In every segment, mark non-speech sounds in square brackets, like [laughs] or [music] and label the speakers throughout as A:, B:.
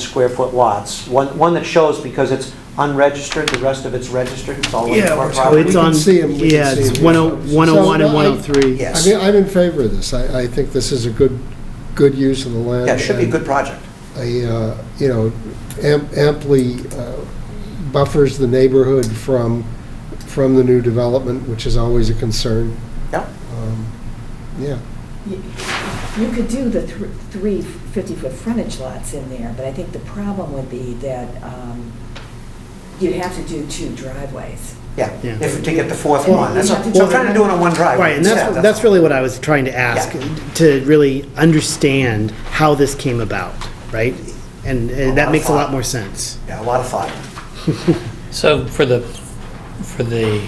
A: square foot lots. One, one that shows because it's unregistered, the rest of it's registered, it's all one
B: Yeah,
A: part
B: it's-
A: property.
B: Oh,
C: it's
B: We can
C: on,
B: see 'em, we can
C: yeah,
B: see
C: it's oh,
B: 'em.
C: 10- 101 and
B: So, I-
C: 103.
B: Yes.
D: I mean, I'm in favor of this. I, I think this is a good, good use of the land.
A: Yeah, it should be a
D: and
A: good project.
D: a, uh, you know, am- amply uh, buffers the neighborhood from, from the new development, which is always a concern.
A: Yeah.
D: Um, Yeah,
E: You you could do the thr- three 50-foot frontage lots in there, but I think the problem would be that um, you'd have to do two driveways.
A: Yeah,
C: Yeah.
A: if, to get the fourth
E: Well,
A: one, that's,
E: you
A: all.
E: have to
A: we're
E: do
A: trying to
E: it
A: do it
E: on-
A: on one driveway.
C: Right, and that's,
A: Yeah,
C: that's really what I was trying to ask,
A: Yeah.
C: to really understand how this came about, right? And
A: A
C: uh,
A: lot of
C: that makes a
A: thought.
C: lot more sense.
A: Yeah, a lot of thought.
F: So for the, for the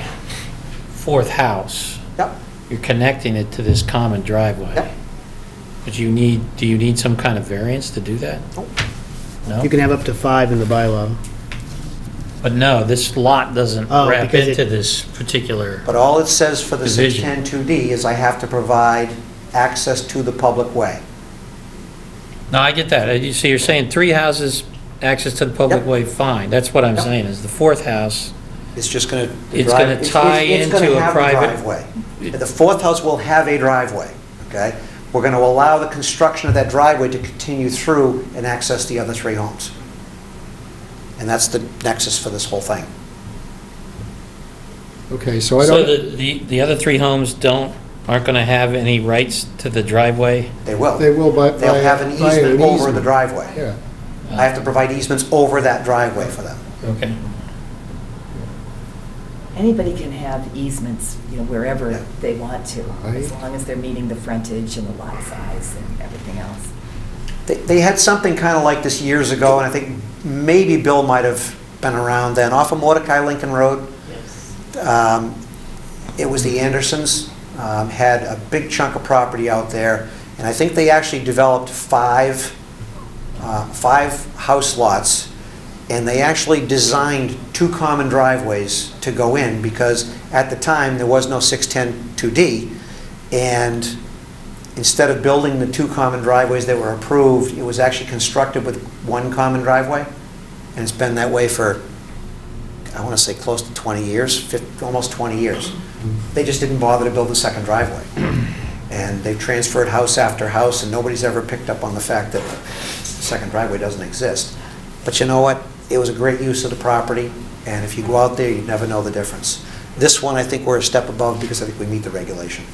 F: fourth house,
A: Yep,
F: you're connecting it to this common
A: Yep.
F: driveway. But you need, do you need some kind of variance to do that?
A: Nope.
F: No?
C: You can have up to five in the bylaw.
F: But no, this lot doesn't
C: Oh,
F: wrap
C: because it-
F: into this particular,
A: but all it says for the
F: Division.
A: 610-2D is I have to provide access to the public way.
F: no, I get that. Uh, you- So you're saying three houses, access to the public
A: Yep.
F: way, fine. That's what I'm
A: Yep.
F: saying, is the fourth house,
A: It's just going to.
F: It's gonna tie into a private-
A: The fourth house will have a driveway, okay? We're going to allow the construction of that driveway to continue through and access the other three homes. And that's the nexus for this whole thing.
D: okay, so I
F: so
D: don't,
F: the, the the other three homes don't, aren't going to have any rights to the driveway?
A: They will.
D: they will buy.
A: They'll have an
D: buy an
A: easement over the
D: easement.
A: driveway.
D: Yeah,
A: I have to provide easements over that driveway for them.
F: Okay.
E: Anybody can have easements, you know, wherever
A: Yeah.
E: they want to,
D: Right.
E: as long as they're meeting the frontage and the lot size and everything else.
A: They, they had something kind of like this years ago, and I think maybe Bill might have been around then, off of Mordecai Lincoln Road. Um, It was the Andersons, um, had a big chunk of property out there, and I think they actually developed five, uh, five house lots, and they actually designed two common driveways to go in, because at the time, there was no 610 2D, and instead of building the two common driveways that were approved, it was actually constructed with one common driveway, and it's been that way for, I want to say, close to 20 years, fif- almost 20 years. They just didn't bother to build a second driveway. And they've transferred house after house, and nobody's ever picked up on the fact that the second driveway doesn't exist. But you know what? It was a great use of the property, and if you go out there, you never know the difference. This one, I think we're a step above because I think we meet the regulation.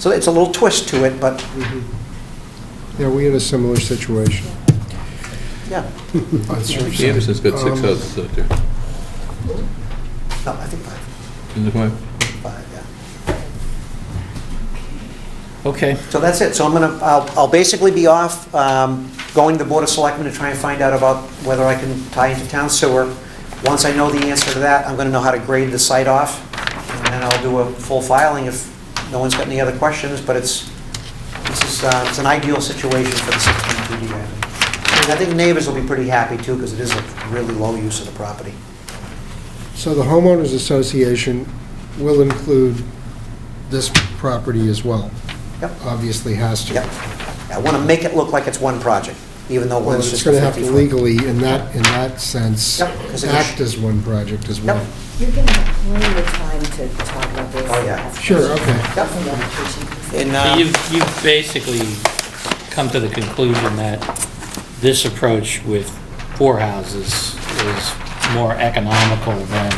A: So it's a little twist to it, but,
D: yeah, we had a similar situation.
A: yeah.
D: on Surf
G: The Anderson's got six
D: Um,
G: houses out there,
A: No, I think five,
G: isn't there five?
A: five, yeah.
F: Okay.
A: So that's it. So I'm gonna, I'll, I'll basically be off, um, going to the Board of Selectmen to try and find out about whether I can tie into town sewer. Once I know the answer to that, I'm gonna know how to grade the site off, and then I'll do a full filing if no one's got any other questions, but it's, this is, uh, it's an ideal situation for the 16 PD area. And I think neighbors will be pretty happy too, because it is a really low use of the property.
D: So the homeowners association will include this property as well.
A: Yep.
D: Obviously has to.
A: Yep. I want to make it look like it's one project, even though
D: Well,
A: it's
D: it's
A: just a
D: going to have to
A: 50-foot.
D: legally, in that, in that sense,
A: Yep, 'cause it is-
D: act as one project as well.
A: Yep.
E: You're going to have plenty of time to talk about this.
A: Oh, yeah.
E: ask
D: Sure,
E: questions.
D: okay.
A: Yep.
E: Send applications.
A: And,
F: So
A: uh,
F: You've, you've basically come to the conclusion that this approach with four houses is more economical than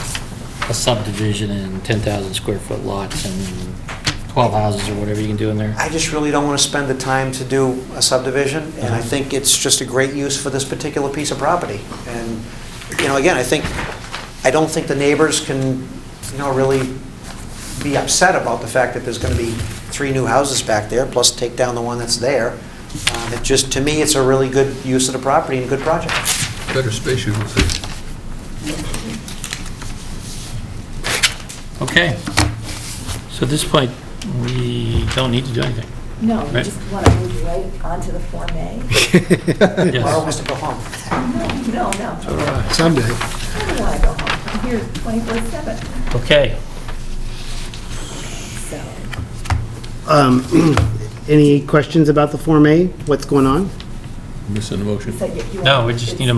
F: a subdivision in 10,000 square foot lots and 12 houses or whatever you can do in there?
A: I just really don't want to spend the time to do a subdivision, and I
F: Uh-huh.
A: think it's just a great use for this particular piece of property. And, you know, again, I think, I don't think the neighbors can, you know, really be upset about the fact that there's going to be three new houses back there, plus take down the one that's there. Um, It just, to me, it's a really good use of the property and a good project.
G: Better space, you would say.
F: Okay. So at this point, we don't need to do anything.
E: No, we
F: Right.
E: just want to move right onto the Form A. [laughs]
A: Laura
F: Yes.
A: wants to go home.
E: No, no, no.
D: Someday.
E: I don't want to go home. I'm here 24/7,
F: Okay.
E: so.
C: [clears throat] Um, Any questions about the Form A? What's going on?
G: missing the motion.
E: So you- you
F: No,
E: want-
F: we just
E: it's-
F: need a